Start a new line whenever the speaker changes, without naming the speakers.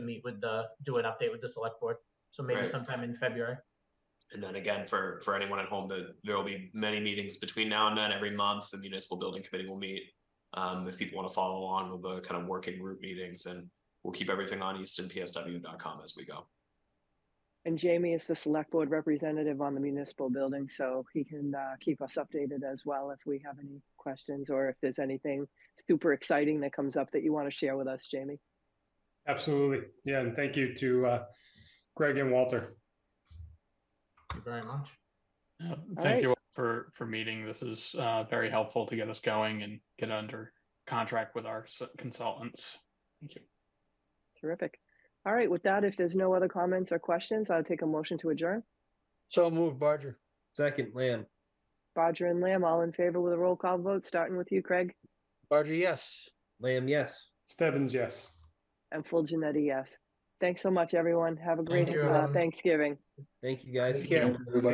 meet with the, do an update with the select board. So maybe
Right.
sometime in February.
And then again, for, for anyone at home, the, there will be many meetings between now and then. Every month, the municipal building committee will meet. Um, if people want to follow along with the kind of working group meetings and we'll keep everything on eastonpsw.com as we go.
And Jamie is the select board representative on the municipal building, so he can uh, keep us updated as well if we have any questions or if there's anything super exciting that comes up that you want to share with us, Jamie.
Absolutely. Yeah, and thank you to uh, Greg and Walter.
Thank you very much.
Yeah,
All
Thank
right.
you all for, for meeting. This is uh, very helpful to get us going and get under contract with our s- consultants. Thank you.
Terrific. All right, with that, if there's no other comments or questions, I'll take a motion to adjourn.
So move, Barger.
Second, Lamb.
Bodger and Lamb, all in favor with a roll call vote, starting with you, Craig,
Barger, yes.
Lamb, yes.
Stebbins, yes.
and full Janetti, yes. Thanks so much, everyone. Have a great
you,
uh,
everyone.
Thanksgiving.
Thank you, guys.
Take care.
Everybody.